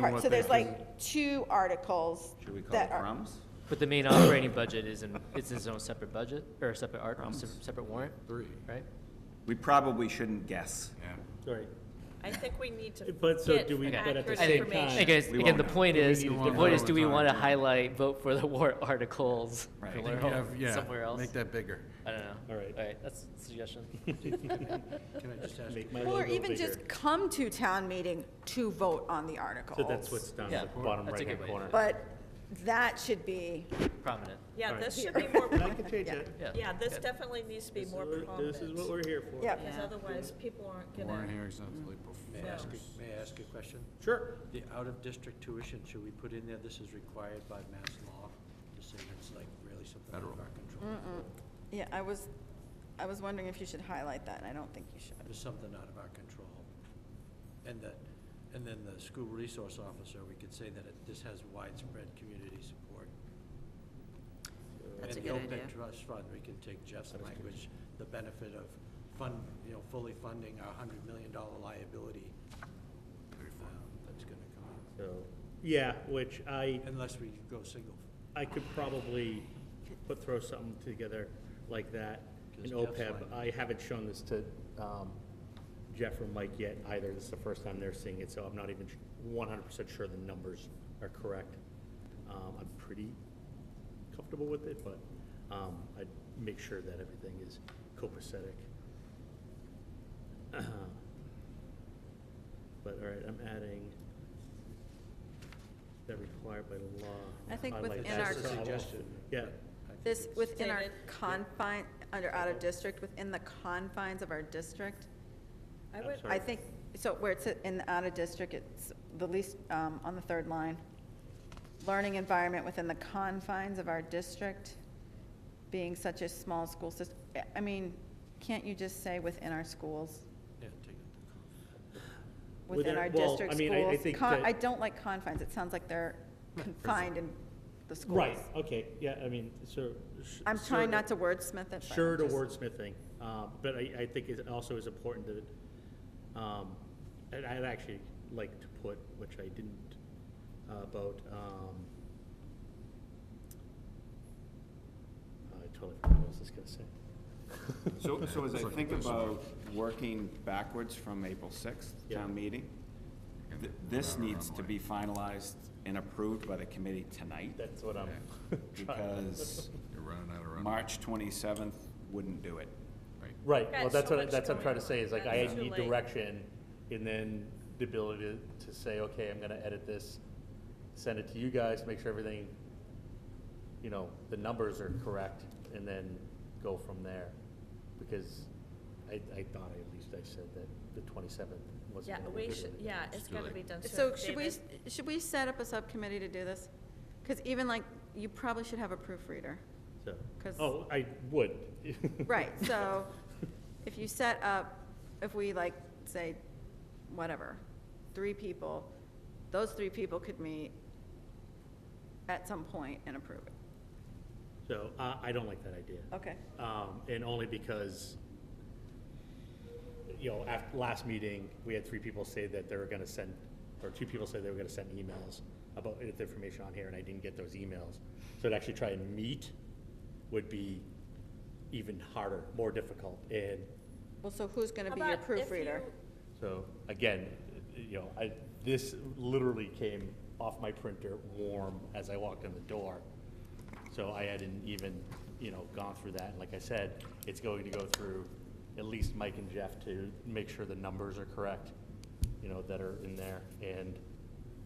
part. what So they there's like two articles Should we call that it are. crumbs? But the main operating budget is in, it's its own separate budget, or a separate art, se- separate warrant, Three. right? We probably shouldn't guess. Right. I think we need to But so get do we- but at the accurate same information. time- Hey guys, We again, won't the know. point Do we is, need the to vote point is, all do the we want to time? highlight, vote for the warrant articles? Right. somewhere Yeah, else- yeah, Somewhere else? Make that bigger. I don't know. All right. All right, that's a suggestion. Can I just ask? Make my Or logo even bigger. just come to town meeting to vote on the articles. So that's what's down at the Yeah, bottom that's a right-hand good way to corner. But that should be, Prominent, Yeah, Alright. this should be more, I can change it. yeah. yeah, this definitely needs to be This is more what- prominent. This is what we're here for. yeah. Because otherwise, people aren't Warren gonna, Harris, that's like May I ask, a- may I ask a question? Sure. The out-of-district tuition, should we put in there, this is required by mass law, to say it's like really something out of our control? Yeah, I was, I was wondering if you should highlight that, and I don't think you should. There's something out of our control. And that, and then the school resource officer, we could say that it, this has widespread community support. That's a And good the idea. OPEB trust fund, we can take Jeff's language, the benefit of fund, you know, fully funding our hundred million dollar liability. um, That's gonna come out. So, yeah, which I, Unless we go single. I could probably put, throw something together like that in Because Jeff's OPEB. like- I haven't shown this to um, Jeff or Mike yet either. This is the first time they're seeing it, so I'm not even one hundred percent sure the numbers are correct. Um, I'm pretty comfortable with it, but um, I'd make sure that everything is copacetic. Uh-huh. But, all right, I'm adding that required by law. I think highlight within that. our- That's a suggestion. Yeah. This, within our Stated. confine, under out of district, within the confines of our district, I I'm would, sorry. I think, so where it's in the out of district, it's the least, um, on the third line. Learning environment within the confines of our district, being such a small school system. I mean, can't you just say within our schools? Yeah, take it. Within Within- our well, I district mean, I- I schools? think Con- that- I don't like confines, it sounds like they're confined in the schools. Right, okay, yeah, I mean, so. sh- I'm sure trying to- not to wordsmith it. but Sure to just- wordsmithing, uh, but I, I think it also is important to, um, and I'd actually like to put, which I didn't, uh, about, um, I totally forgot what I was just gonna say. So, so as I think about working backwards from April sixth, Yeah. town meeting, th- this needs to be finalized and approved by the committee tonight, That's what I'm trying. because You're running out of runway. March twenty-seventh wouldn't do it. Right, Got well, that's so what, I- much that's what I'm going trying to on. say, is like, I That's too need late. direction, and then the ability to, to say, okay, I'm gonna edit this, send it to you guys, make sure everything, you know, the numbers are correct, and then go from there. Because I, I thought at least I said that the twenty-seventh wasn't yeah, gonna be we good. should, with it. yeah, it's gotta be done soon. So should we, David? should we set up a subcommittee to do this? Because even like, you probably should have a proofreader. So- 'Cause- Oh, I would. Right, so if you set up, if we like, say, whatever, three people, those three people could meet at some point and approve it. So, I, I don't like that idea. Okay. Um, and only because, you know, af last meeting, we had three people say that they were gonna send, or two people said they were gonna send emails about the information on here, and I didn't get those emails. So to actually try and meet would be even harder, more difficult, and Well, so who's going to How be your about if proofreader? you- so, again, you know, I, this literally came off my printer warm as I walked in the door. So I hadn't even, you know, gone through that. And like I said, it's going to go through at least Mike and Jeff to make sure the numbers are correct, you know, that are in there and,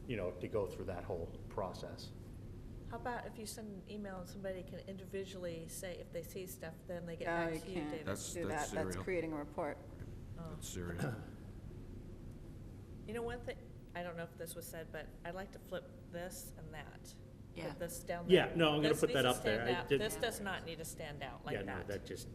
you know, to go through that whole process. How about if you send an email and somebody can individually say if they see stuff, then they get No, back you to you, can't. David? That's- Do that, that's that's serial. creating a report. Oh. That's serious. You know, one thing, I don't know if this was said, but I'd like to flip this and that. Put Yeah. This down there. Yeah, no, I'm gonna This put that needs to up there. stand I out. did- This does not need to stand out Yeah, like no, that. that just.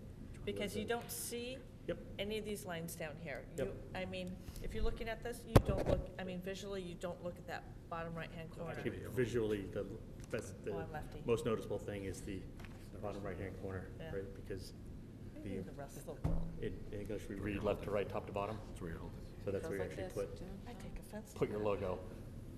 Because you don't see Yep. any of these lines down here. Yep. You, I mean, if you're looking at this, you don't look, I mean, visually, you don't look at that bottom right-hand corner. Actually, visually, the, that's the Oh, I'm lefty. most noticeable thing is the bottom right-hand corner, Yeah. right? Because Maybe the, the rest of the world. in in English, we read left to right, top to bottom, That's where you hold it. so that's Goes where you like actually this, put, Jim. I take offense to put your that. logo.